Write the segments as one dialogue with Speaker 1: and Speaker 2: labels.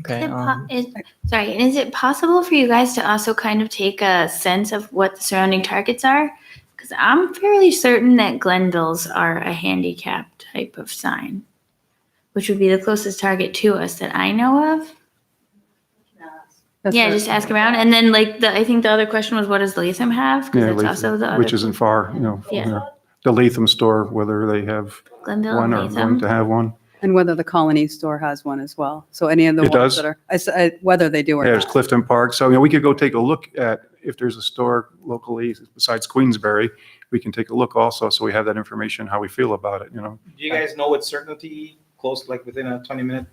Speaker 1: Okay.
Speaker 2: Is it po-
Speaker 1: um,
Speaker 2: is- Sorry, and is it possible for you guys to also kind of take a sense of what the surrounding targets are? Because I'm fairly certain that Glenville's are a handicap type of sign, which would be the closest target to us that I know of.
Speaker 3: That's
Speaker 2: yeah,
Speaker 3: what-
Speaker 2: just ask around, and then like the I think the other question was, what does Latham have? Because
Speaker 4: Yeah,
Speaker 2: that's
Speaker 4: Latham,
Speaker 2: also the other
Speaker 4: which isn't far, you know. from
Speaker 2: Yeah.
Speaker 4: there. The Latham store, whether they have
Speaker 2: Glenville
Speaker 4: one or
Speaker 2: and
Speaker 4: going
Speaker 2: Latham.
Speaker 4: to have one.
Speaker 3: And whether the Colony Store has one as well. So any of the
Speaker 4: It
Speaker 3: ones
Speaker 4: does?
Speaker 3: that are, I s- I- whether they do or
Speaker 4: Yeah, there's
Speaker 3: not.
Speaker 4: Clifton Park. So, you know, we could go take a look at if there's a store locally besides Queensberry, we can take a look also. So we have that information, how we feel about it, you know.
Speaker 5: Do you guys know with certainty, close, like within a twenty-minute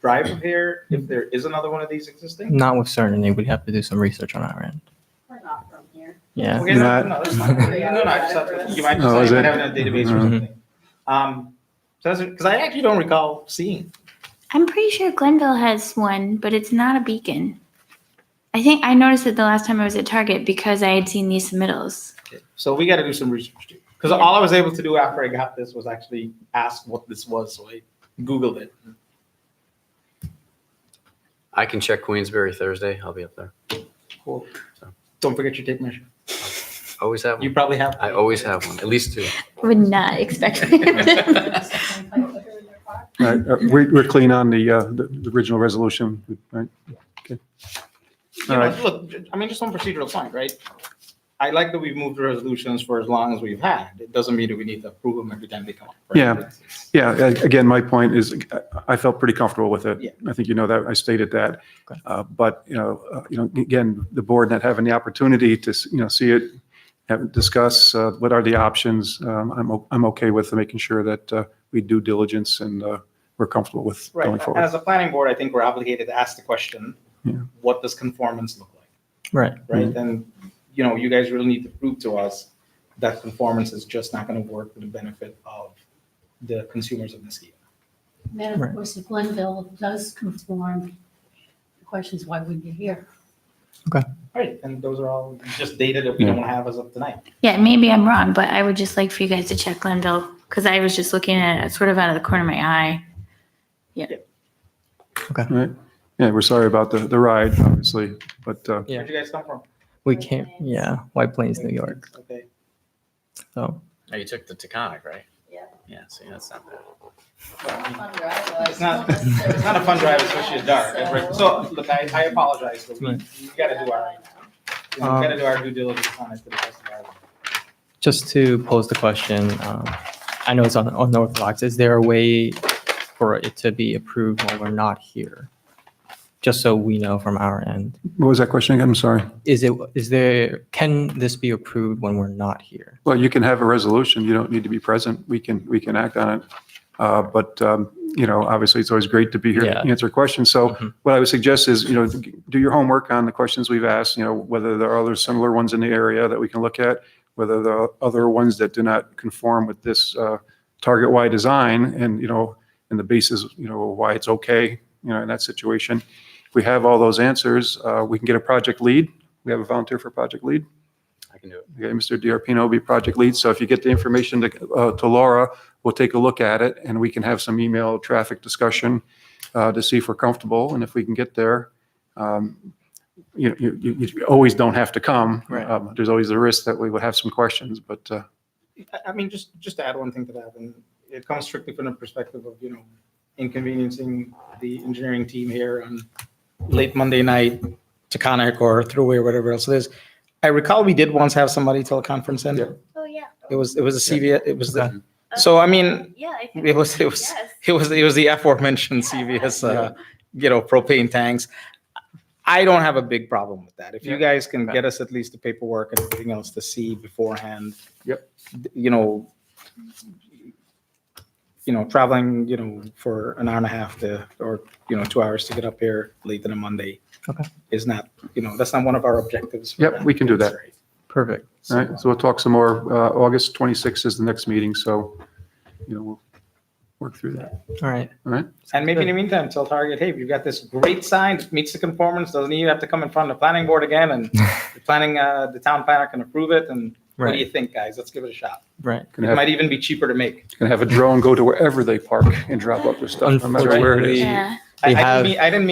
Speaker 5: drive of here, if there is another one of these existing?
Speaker 1: Not with certainty. We'd have to do some research on our end.
Speaker 6: We're not from here.
Speaker 1: Yeah.
Speaker 5: Okay, no,
Speaker 4: Not-
Speaker 5: no, that's fine. No, no, I just thought- You might
Speaker 4: Oh,
Speaker 5: just
Speaker 4: is
Speaker 5: have
Speaker 4: it?
Speaker 5: it in a database or
Speaker 4: Mhm.
Speaker 5: something. Um, so that's, because I actually don't recall seeing.
Speaker 2: I'm pretty sure Glenville has one, but it's not a beacon. I think I noticed it the last time I was at Target because I had seen these submittals.
Speaker 5: So we got to do some research too. Because all I was able to do after I got this was actually ask what this was, so I Googled it.
Speaker 7: I can check Queensbury Thursday. I'll be up there.
Speaker 5: Cool. Don't forget your tape measure.
Speaker 7: Always have
Speaker 5: You
Speaker 7: one.
Speaker 5: probably have.
Speaker 7: I always have one, at least two.
Speaker 2: Would not expect.
Speaker 4: All right, uh, We're, we're clean on the, uh, the the original resolution, right?
Speaker 5: You know,
Speaker 4: Alright.
Speaker 5: Look, I mean, just one procedural point, right? I like that we've moved the resolutions for as long as we've had. It doesn't mean that we need to approve them every time they come up. right?
Speaker 4: Yeah.
Speaker 5: It's- it's-
Speaker 4: Yeah, a- again, my point is, I- I felt pretty comfortable with
Speaker 5: Yeah.
Speaker 4: it. I think you know that, I stated that.
Speaker 1: Okay.
Speaker 4: Uh, But, you know, uh, you know, again, the board not having the opportunity to, s- you know, see it, have, discuss uh, what are the options, um, I'm, o- I'm okay with making sure that uh, we do diligence and uh, we're comfortable with
Speaker 5: Right.
Speaker 4: going
Speaker 5: And
Speaker 4: forward.
Speaker 5: As a planning board, I think we're obligated to ask the question,
Speaker 4: Yeah. Mm-hmm.
Speaker 5: what does conformance look like?
Speaker 1: Right.
Speaker 5: Right? And, you know, you guys really need to prove to us that conformance is just not going to work for the benefit of the consumers of this deal.
Speaker 6: Then,
Speaker 1: Right.
Speaker 6: of course, if Glenville does conform, the question is why wouldn't you hear?
Speaker 5: Right. And those are all just data that we don't have as of tonight.
Speaker 2: yeah, maybe I'm wrong, but I would just like for you guys to check Glenville because I was just looking at it sort of out of the corner of my eye.
Speaker 4: Right? Yeah, we're sorry about the, the ride, obviously, but uh,
Speaker 1: Yeah.
Speaker 5: Where'd you guys come from?
Speaker 1: We can't. Yeah. White Plains, New York.
Speaker 5: Okay.
Speaker 1: So
Speaker 7: Oh, you took the Taconic, right?
Speaker 6: Yeah.
Speaker 7: Yeah, see, that's not bad.
Speaker 6: It's
Speaker 5: It's not- It's not a fun drive, especially at dark. That's right. So, look, I, I apologize, but we,
Speaker 1: Right.
Speaker 5: we gotta do our, you know, we gotta do our due diligence on it to the best of our.
Speaker 1: just to pose the question, um, I know it's on, on Orthodox. Is there a way for it to be approved while we're not here? Just so we know from our end,
Speaker 4: what was that question again? I'm sorry.
Speaker 1: is it is there can this be approved when we're not here?
Speaker 4: Well, you can have a resolution, you don't need to be present, we can, we can act on it. Uh, But, um, you know, obviously, it's always great to be here
Speaker 1: Yeah.
Speaker 4: to answer questions. So
Speaker 1: Mhm.
Speaker 4: what I would suggest is, you know, do your homework on the questions we've asked, you know, whether there are other similar ones in the area that we can look at, whether there are other ones that do not conform with this uh, target Y design and, you know, and the basis, you know, why it's okay, you know, in that situation. If we have all those answers, uh, we can get a project lead. We have a volunteer for project lead.
Speaker 7: I can do it.
Speaker 4: Okay, Mr. DiRpino will be project lead, so if you get the information to, uh, to Laura, we'll take a look at it, and we can have some email traffic discussion uh, to see if we're comfortable, and if we can get there. um, You, you, you you always don't have to come.
Speaker 1: Right.
Speaker 4: Um, There's always a risk that we would have some questions, but, uh,
Speaker 5: I, I mean, just, just to add one thing to that, and it comes strictly from the perspective of, you know, inconveniencing the engineering team here on late Monday night, Taconic or Thruway or whatever else it is. I recall we did once have somebody teleconference in.
Speaker 4: Yeah.
Speaker 8: Oh, yeah. Um,
Speaker 5: It was, it was a CVS, it was the,
Speaker 1: Okay.
Speaker 5: so I mean,
Speaker 8: Yeah, I think,
Speaker 5: it was, it was.
Speaker 8: yes.
Speaker 5: It was it was the aforementioned CVS, uh, you know, propane tanks. I don't have a big problem with that. If you guys can get us at least the paperwork and everything else to see beforehand.
Speaker 4: Yep.
Speaker 5: d- You know, you know, traveling, you know, for an hour and a half to, or, you know, two hours to get up here late on a Monday.
Speaker 1: Okay.
Speaker 5: Is not, you know, that's not one of our objectives. for
Speaker 4: Yep, we can do that.
Speaker 1: Perfect.
Speaker 4: all right, so we'll talk some more. Uh, August 26th is the next meeting, so, you know, we'll work through that.
Speaker 1: All right.
Speaker 5: And maybe in the meantime, tell Target, hey, we've got this great sign that meets the conformance, doesn't even have to come in front of the planning board again, and the planning, uh, the town planner can approve it, and what do
Speaker 1: Right.
Speaker 5: you think, guys? Let's give it a shot.
Speaker 1: Right.
Speaker 4: Can
Speaker 5: It
Speaker 4: have,
Speaker 5: might even be cheaper to make.
Speaker 4: can have a drone go to wherever they park and drop off their stuff, no matter where it
Speaker 1: Unfortunately,
Speaker 4: is.
Speaker 2: Yeah.
Speaker 5: I, I
Speaker 1: have-
Speaker 5: didn't mean, I didn't mean